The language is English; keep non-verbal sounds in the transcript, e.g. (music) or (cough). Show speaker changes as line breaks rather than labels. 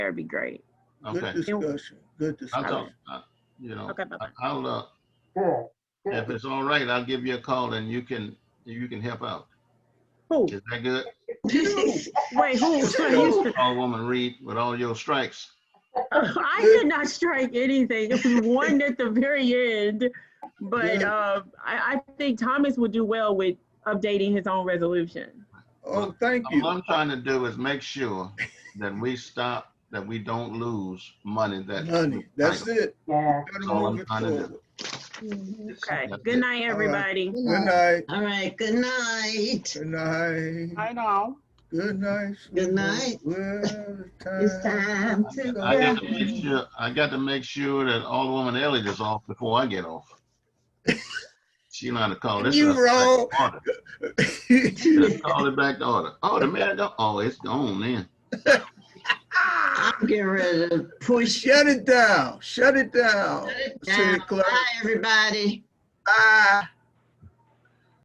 That'd be great.
Good
Okay,
discussion, good
I'll
discussion.
talk, uh, you know,
Okay, bye-bye.
I- I'll, uh,
Yeah,
if it's all right, I'll give you a call and you can, you can help out.
Who?
Is that
(laughs)
good?
Wait, who?
All woman Reed with all your strikes.
(laughs) I did not strike anything. It was one at the very end. But
Yeah.
uh, I, I think Thomas would do well with updating his own resolution.
Oh, thank
All
you.
I'm trying to do is make sure that we stop, that we don't lose money that.
Honey, that's it.
yeah.
Gotta
That's all I'm
move it
trying to do.
forward.
Mm-hmm.
Okay,
That's
good
it.
night, everybody.
Good night,
All right, good night.
good night,
I know.
good night.
Good night.
Well,
It's
time.
time to
I got to make
go.
sure, I got to make sure that all woman Elliott is off before I
(laughs)
get off. She know how to call this.
You
stuff back
wrong.
to order.
(laughs)
Just Call it back to order. Oh, the man, don't- oh, it's gone then.
I'm getting ready to push.
Shut it down, shut it down.
Shut it
City
down.
Clerk.
Bye, everybody.
Bye.